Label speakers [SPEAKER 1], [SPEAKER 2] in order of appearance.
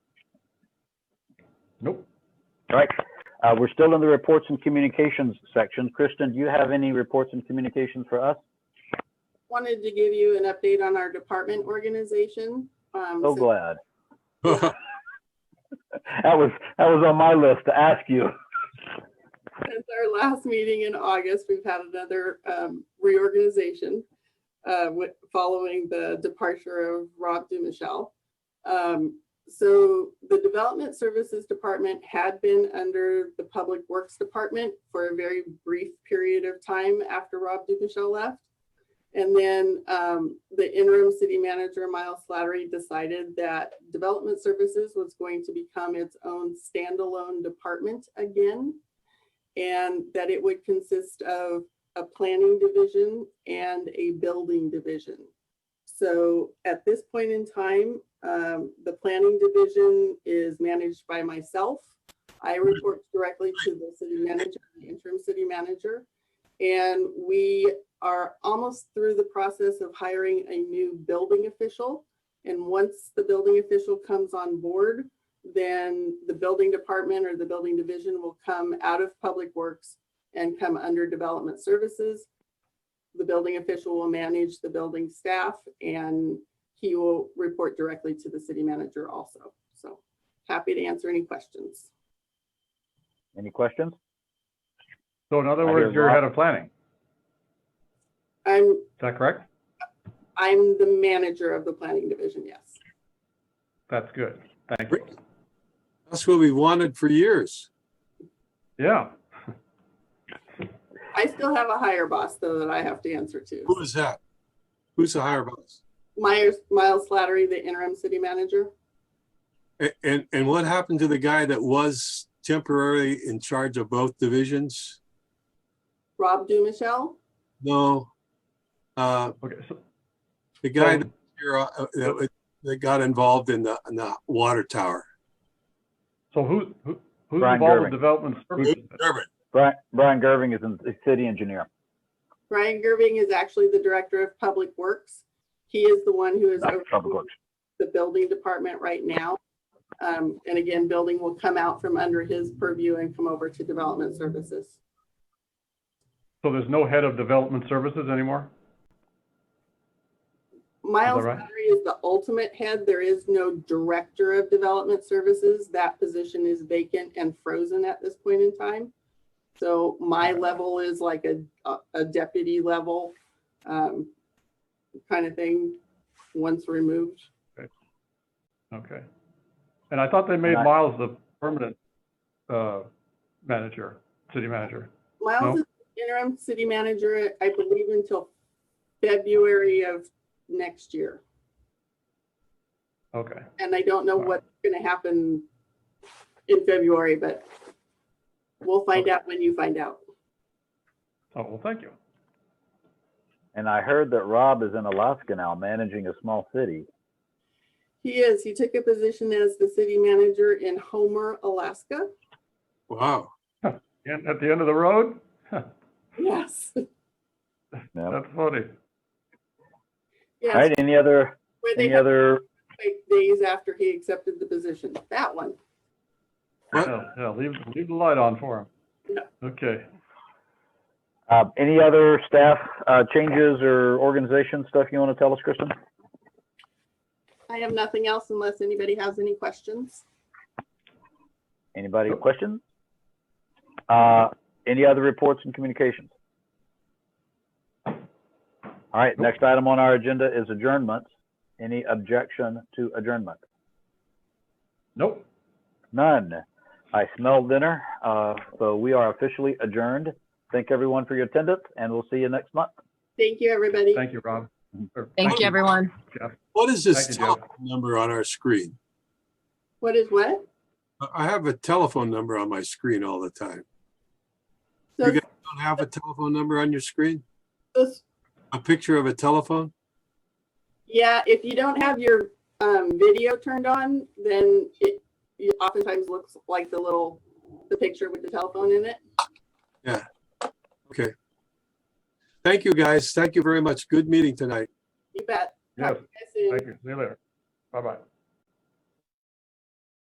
[SPEAKER 1] Nope.
[SPEAKER 2] All right. Uh, we're still in the reports and communications section. Kristen, do you have any reports and communications for us?
[SPEAKER 3] Wanted to give you an update on our department organization. Um,
[SPEAKER 2] So
[SPEAKER 3] since
[SPEAKER 2] glad. That was, that was on my list to ask you.
[SPEAKER 3] Since our last meeting in August, we've had another um, reorganization uh, wi- following the departure of Rob Dumichel. Um, So the Development Services Department had been under the Public Works Department for a very brief period of time after Rob Dumichel left. And then um, the interim city manager, Miles Slattery, decided that Development Services was going to become its own standalone department again and that it would consist of a planning division and a building division. So at this point in time, um, the planning division is managed by myself. I report directly to the city manager, the interim city manager. And we are almost through the process of hiring a new building official. And once the building official comes on board, then the building department or the building division will come out of Public Works and come under Development Services. The building official will manage the building staff and he will report directly to the city manager also. So happy to answer any questions.
[SPEAKER 2] Any questions?
[SPEAKER 1] So in other
[SPEAKER 2] I
[SPEAKER 1] words,
[SPEAKER 2] hear
[SPEAKER 1] you're
[SPEAKER 2] lot-
[SPEAKER 1] head of planning. Is
[SPEAKER 3] I'm,
[SPEAKER 1] that correct?
[SPEAKER 3] I'm the manager of the planning division, yes.
[SPEAKER 1] That's good. Thank you.
[SPEAKER 4] That's what we wanted for years.
[SPEAKER 1] Yeah.
[SPEAKER 3] I still have a higher boss though that I have to answer
[SPEAKER 4] Who
[SPEAKER 3] to.
[SPEAKER 4] is that? Who's the higher boss?
[SPEAKER 3] Myers, Miles Slattery, the interim city manager.
[SPEAKER 4] A- And, and what happened to the guy that was temporarily in charge of both divisions?
[SPEAKER 3] Rob Dumichel,
[SPEAKER 4] No. Uh,
[SPEAKER 1] Okay. So,
[SPEAKER 4] the guy that, you're, uh, that was- that got involved in the, in the water tower.
[SPEAKER 1] so who, who, who's
[SPEAKER 2] Brian
[SPEAKER 1] involved with
[SPEAKER 2] Gerving.
[SPEAKER 1] development services?
[SPEAKER 4] Durbin.
[SPEAKER 2] Brian, Brian Gerving is in- is city engineer.
[SPEAKER 3] Brian Gerving is actually the director of public works. He is the one who is
[SPEAKER 2] Not
[SPEAKER 3] over
[SPEAKER 2] Public Works.
[SPEAKER 3] the building department right now. Um, and again, building will come out from under his purview and come over to development services.
[SPEAKER 1] So there's no head of development services anymore?
[SPEAKER 3] Miles
[SPEAKER 1] right?
[SPEAKER 3] Battery is the ultimate head. There is no director of development services. That position is vacant and frozen at this point in time. So my level is like a, a- a deputy level, um, kind of thing, once removed.
[SPEAKER 1] Okay. And I thought they made
[SPEAKER 2] Right.
[SPEAKER 1] Miles the permanent, uh, manager, city manager.
[SPEAKER 3] Miles
[SPEAKER 1] No?
[SPEAKER 3] is interim city manager, I believe until February of next year.
[SPEAKER 1] Okay.
[SPEAKER 3] And I don't know
[SPEAKER 1] Wow.
[SPEAKER 3] what's gonna happen in February, but we'll find out when you find out.
[SPEAKER 1] Oh, well, thank you.
[SPEAKER 2] And I heard that Rob is in Alaska now, managing a small city.
[SPEAKER 3] He is, he took a position as the city manager in Homer, Alaska.
[SPEAKER 4] Wow.
[SPEAKER 1] And at the end of the road?
[SPEAKER 3] Yes,
[SPEAKER 2] Yep.
[SPEAKER 1] That's funny.
[SPEAKER 2] All
[SPEAKER 3] yes,
[SPEAKER 2] right, any other,
[SPEAKER 3] where they
[SPEAKER 2] any
[SPEAKER 3] had
[SPEAKER 2] other,
[SPEAKER 3] like days after he accepted the position, that one.
[SPEAKER 4] What?
[SPEAKER 1] Yeah, yeah, leave, leave the light on for him. Okay.
[SPEAKER 2] uh, any other staff, uh, changes or organization stuff you want to tell us, Kristen?
[SPEAKER 3] I have nothing else unless anybody has any questions.
[SPEAKER 2] Anybody
[SPEAKER 1] Nope.
[SPEAKER 2] questions? Uh, any other reports and communications? All right, next item on our agenda is adjournment. Any objection to adjournment?
[SPEAKER 1] Nope.
[SPEAKER 2] None. I smell dinner, uh, so we are officially adjourned. Thank everyone for your attendance, and we'll see you next month.
[SPEAKER 3] Thank you, everybody.
[SPEAKER 1] Thank you, Rob.
[SPEAKER 2] Mm-hmm.
[SPEAKER 1] Or-
[SPEAKER 5] Thank you, everyone.
[SPEAKER 4] What is this
[SPEAKER 1] Thank you, Joe.
[SPEAKER 4] telephone number on our screen?
[SPEAKER 3] What is what?
[SPEAKER 4] I- I have a telephone number on my screen all the time.
[SPEAKER 3] So
[SPEAKER 4] You guys don't have a telephone number on your screen?
[SPEAKER 3] this
[SPEAKER 4] A picture of a telephone?
[SPEAKER 3] Yeah, if you don't have your um, video turned on, then it, it oftentimes looks like the little, the picture with the telephone in it.
[SPEAKER 4] Okay. Thank you, guys. Thank you very much. Good meeting tonight.
[SPEAKER 3] You bet.
[SPEAKER 1] Yes,
[SPEAKER 3] Talk to you guys soon.
[SPEAKER 1] thank you. See you later. Bye-bye.